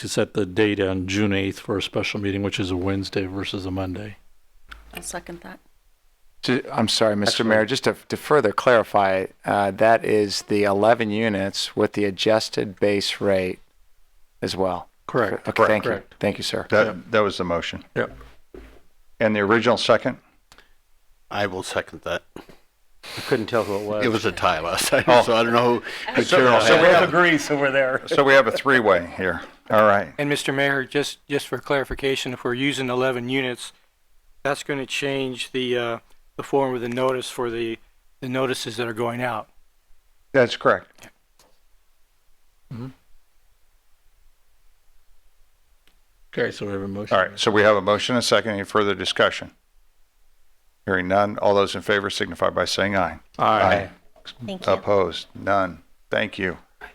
to set the date on June 8th for a special meeting, which is a Wednesday versus a Monday. I'll second that. Ju- I'm sorry, Mr. Mayor, just to, to further clarify, uh, that is the 11 units with the adjusted base rate as well. Correct. Okay, thank you. Correct. Thank you, sir. That, that was the motion. Yep. And the original second? I will second that. I couldn't tell who it was. Oh. It was a tie last time, so I don't know who. but Carol Uh, so had we it. have- agree, so we're there. So we have a three-way here. All right. And Mr. Mayor, just, just for clarification, if we're using 11 units, that's going to change the, uh, the form of the notice for the, the notices that are going out. That's correct. Okay, so we have a motion. All right. So we have a motion and a second. Any further discussion? Hearing none. All those in favor signify by saying aye. Aye. Thank you. Opposed? None. Thank you.